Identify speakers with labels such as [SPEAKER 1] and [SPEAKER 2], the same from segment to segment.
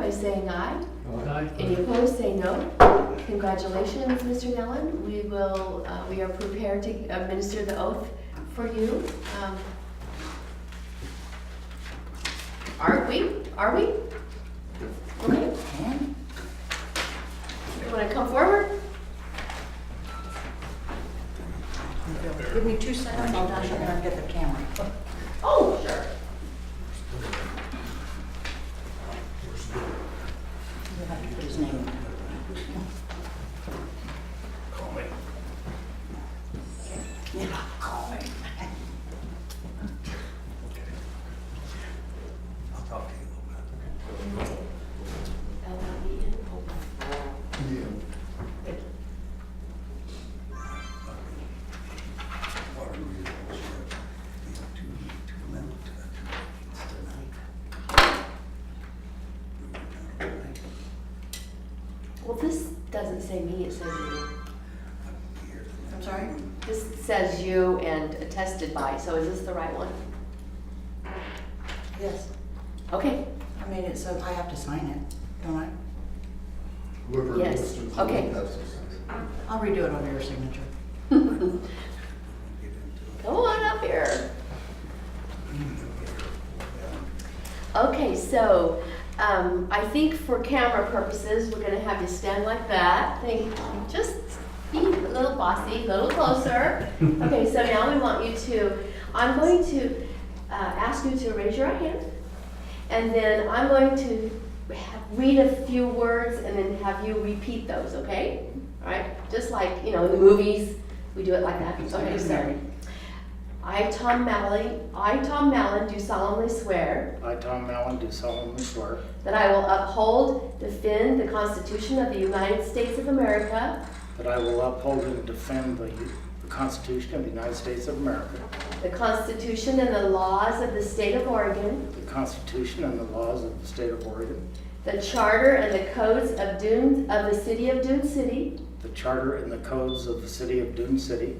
[SPEAKER 1] by saying aye.
[SPEAKER 2] Aye.
[SPEAKER 1] Any opposed, say no. Congratulations, Mr. Nellen. We will, uh, we are prepared to administer the oath for you. Um, Aren't we? Are we? Okay. You want to come forward?
[SPEAKER 3] Give me two seconds, I'll dash over and get the camera.
[SPEAKER 1] Oh, sure.
[SPEAKER 3] You'll have to put his name in.
[SPEAKER 4] Call me.
[SPEAKER 3] Yeah, call me.
[SPEAKER 4] Okay. I'll talk to you a
[SPEAKER 1] L-I-E-N,
[SPEAKER 4] little bit. Water wheel, you know, two, two men, two, two men tonight.
[SPEAKER 1] Well, this doesn't say me, it says you.
[SPEAKER 3] I'm sorry?
[SPEAKER 1] This says you and attested by, so is this the right one?
[SPEAKER 3] Yes.
[SPEAKER 1] Okay,
[SPEAKER 3] I mean, it says I have to sign it, don't I?
[SPEAKER 5] Whoever
[SPEAKER 1] Yes,
[SPEAKER 5] goes to the
[SPEAKER 1] okay.
[SPEAKER 5] passes.
[SPEAKER 3] I'll redo it under your signature.
[SPEAKER 1] come on up here. Okay, so, um, I think for camera purposes, we're gonna have you stand like that. Thank you. Just be a little bossy, a little closer. Okay, so now we want you to, I'm going to, uh, ask you to raise your right hand. And then I'm going to ha- read a few words and then have you repeat those, okay? All right, just like, you know, in the movies, we do it like that. Okay, sorry. I, Tom Mallon, I, Tom Mallon, do solemnly swear
[SPEAKER 6] I, Tom Allen, do solemnly swear
[SPEAKER 1] that I will uphold, defend the Constitution of the United States of America,
[SPEAKER 6] that I will uphold and defend the the Constitution of the United States of America,
[SPEAKER 1] the Constitution and the laws of the State of Oregon,
[SPEAKER 6] the Constitution and the laws of the state of Oregon,
[SPEAKER 1] the Charter and the codes of Dune, of the City of Dune City,
[SPEAKER 6] the charter and the codes of the city of Dune City,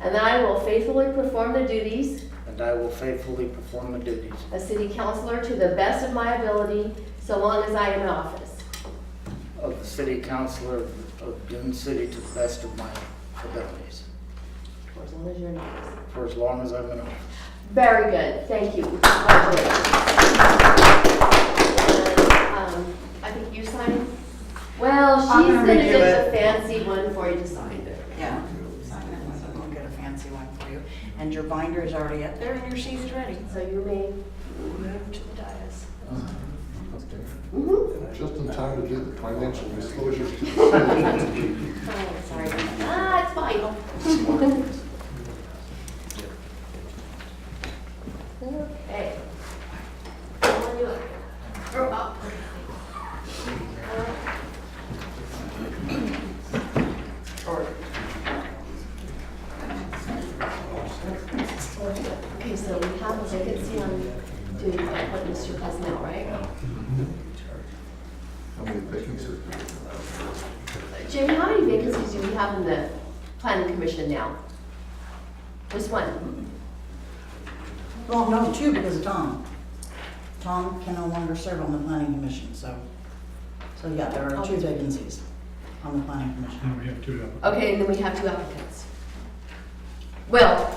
[SPEAKER 1] and that I will faithfully perform the duties
[SPEAKER 6] and I will faithfully perform the duties
[SPEAKER 1] a city councillor to the best of my ability, so long as I am in office.
[SPEAKER 6] of the city councilor of of Dune City to the best of my abilities,
[SPEAKER 1] Or as long as you're in office.
[SPEAKER 6] for as long as I'm in office.
[SPEAKER 1] Very good, thank you. Congratulations. And, um, I think you sign. Well,
[SPEAKER 3] I'm
[SPEAKER 1] she's
[SPEAKER 3] gonna
[SPEAKER 1] gonna
[SPEAKER 3] redo
[SPEAKER 1] do a
[SPEAKER 3] it.
[SPEAKER 1] fancy one for you to sign.
[SPEAKER 3] Yeah. Sign that one, so I'll get a fancy one for you. And your binder is already up there and your sheet is ready.
[SPEAKER 1] So you may,
[SPEAKER 3] Move to the dais.
[SPEAKER 1] mhm.
[SPEAKER 5] Just in time to do the financial disclosures. to the
[SPEAKER 1] Oh, sorry. Ah, it's fine.
[SPEAKER 5] city.
[SPEAKER 1] Okay. Come on, you up. You're up. Okay, so we have a vacancy on duty, I put Mr. Cosnell, right?
[SPEAKER 5] How many vacancies? do we have?
[SPEAKER 1] Jamie, how many vacancies do we have in the planning commission now? Just one?
[SPEAKER 3] Well, no, two because of Tom. Tom can no longer serve on the planning commission, so, so yeah, there are two vacancies on the planning commission.
[SPEAKER 2] Now we have two of them.
[SPEAKER 1] Okay, and then we have two applicants. Well,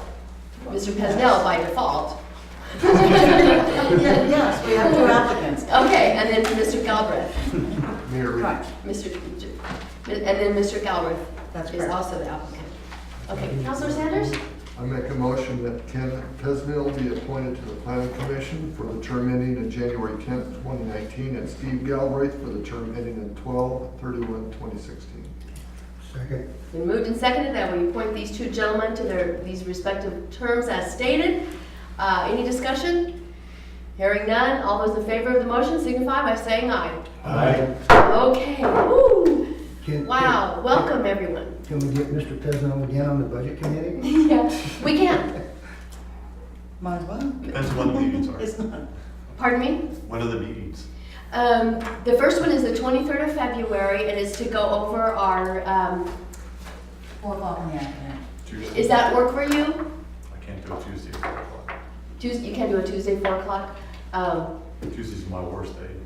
[SPEAKER 1] Mr. Pesnell by default.
[SPEAKER 3] Yeah, Yes, we have two applicants.
[SPEAKER 1] Okay, and then Mr. Galbraith,
[SPEAKER 5] Mayor Reed.
[SPEAKER 3] Right,
[SPEAKER 1] Mr., and then Mr. Galbraith
[SPEAKER 3] That's
[SPEAKER 1] is
[SPEAKER 3] correct.
[SPEAKER 1] also the applicant. Okay, Counselor Sanders?
[SPEAKER 5] I make a motion that Ken Pesmill be appointed to the planning commission for the term ending in January tenth, twenty nineteen, and Steve Galbraith for the term ending in 12-31-2016.
[SPEAKER 2] Second.
[SPEAKER 1] Been moved and seconded that we appoint these two gentlemen to their, these respective terms as stated. Uh, any discussion? Hearing none, all those in favor of the motion signify by saying aye.
[SPEAKER 2] Aye.
[SPEAKER 1] Okay, woo,
[SPEAKER 2] Can-
[SPEAKER 1] wow, welcome everyone.
[SPEAKER 2] Can we get Mr. Pesnell again on the budget committee?
[SPEAKER 1] Yeah, we can,
[SPEAKER 3] might as well.
[SPEAKER 7] Depends on when the meetings are.
[SPEAKER 3] It's not,
[SPEAKER 1] pardon me?
[SPEAKER 7] When are the meetings?
[SPEAKER 1] Um, the first one is the twenty-third of February and is to go over our, um,
[SPEAKER 3] four o'clock in the afternoon.
[SPEAKER 7] Tuesday.
[SPEAKER 1] is that work for you?
[SPEAKER 7] I can't do it Tuesday, four o'clock.
[SPEAKER 1] Tuesday, you can do a Tuesday, four o'clock. Um,
[SPEAKER 7] Tuesday's my worst day.